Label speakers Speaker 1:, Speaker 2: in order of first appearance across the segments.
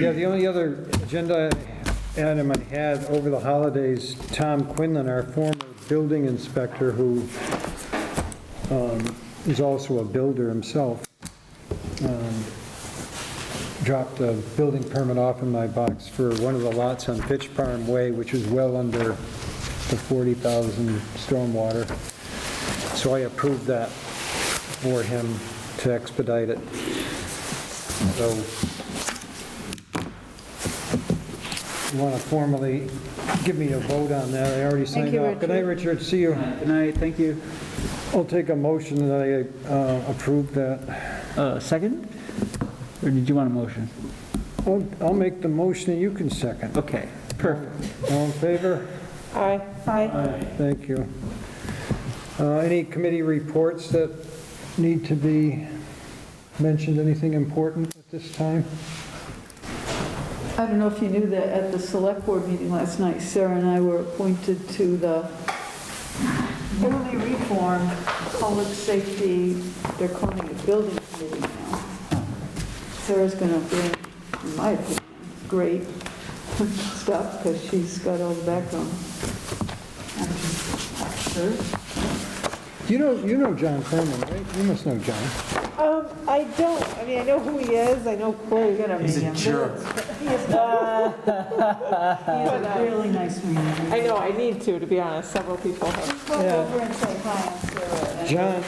Speaker 1: Yeah, the only other agenda item I had over the holidays, Tom Quinlan, our former building inspector, who um, is also a builder himself, um, dropped a building permit off in my box for one of the lots on Pitch Farm Way, which is well under the 40,000 stormwater. So I approved that for him to expedite it. So you want to formally give me a vote on that, I already signed
Speaker 2: you,
Speaker 1: off. Good night, Richard, see you.
Speaker 3: Good night, Uh, thank you.
Speaker 1: I'll take a motion that I uh, approve that.
Speaker 3: Uh, Second? Or did you want a motion?
Speaker 1: I'll I'll make the motion and you can second.
Speaker 3: Okay, perfect.
Speaker 1: All in favor?
Speaker 2: Aye. Aye.
Speaker 1: Thank you. Uh, Any committee reports that need to be mentioned, anything important at this time?
Speaker 4: I don't know if you knew that at the select board meeting last night, Sarah and I were appointed to the newly reformed Public Safety, they're calling it Building Committee now. Sarah's going to bring, in my opinion, great stuff because she's got all the background. Sure.
Speaker 1: You know, you know John Furman, right? You must know John.
Speaker 2: Um, I don't, I mean, I know who he is, I know Corey.
Speaker 4: He's a jerk. He has a really nice man.
Speaker 2: I know, I need to, to be honest, several people have.
Speaker 4: Walk
Speaker 1: Yeah.
Speaker 4: over and say hi, I'm Sarah. and-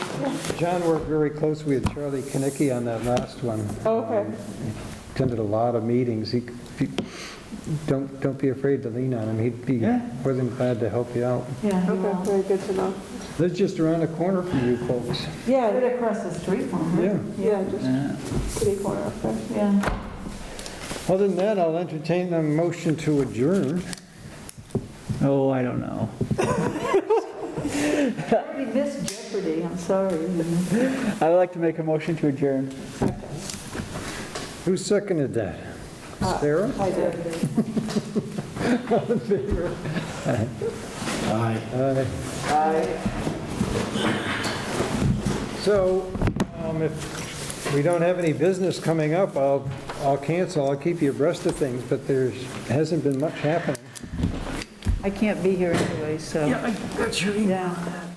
Speaker 1: John, John worked very closely with Charlie Kinnicky on that last one.
Speaker 2: Okay.
Speaker 1: Attended a lot of meetings. He, he- don't, don't be afraid to lean on him. He'd be
Speaker 3: Yeah.
Speaker 1: more than glad to help you out.
Speaker 4: Yeah, he
Speaker 2: Okay,
Speaker 4: will.
Speaker 2: very good to know.
Speaker 1: They're just around the corner from you folks.
Speaker 4: Right
Speaker 2: Yeah,
Speaker 4: across the street from her.
Speaker 1: Yeah.
Speaker 2: yeah, just
Speaker 3: Uh,
Speaker 2: pretty corner up there.
Speaker 4: Yeah.
Speaker 1: Other than that, I'll entertain a motion to adjourn.
Speaker 3: Oh, I don't know.
Speaker 4: I mean, This Jeopardy, I'm sorry.
Speaker 3: I'd like to make a motion to adjourn.
Speaker 1: Who seconded that? Sarah?
Speaker 2: I did.
Speaker 1: Aye. So, um, if we don't have any business coming up, I'll, I'll cancel, I'll keep you abreast of things, but there's, hasn't been much happening.
Speaker 4: I can't be here anyway, so. Yeah, I got you. Yeah.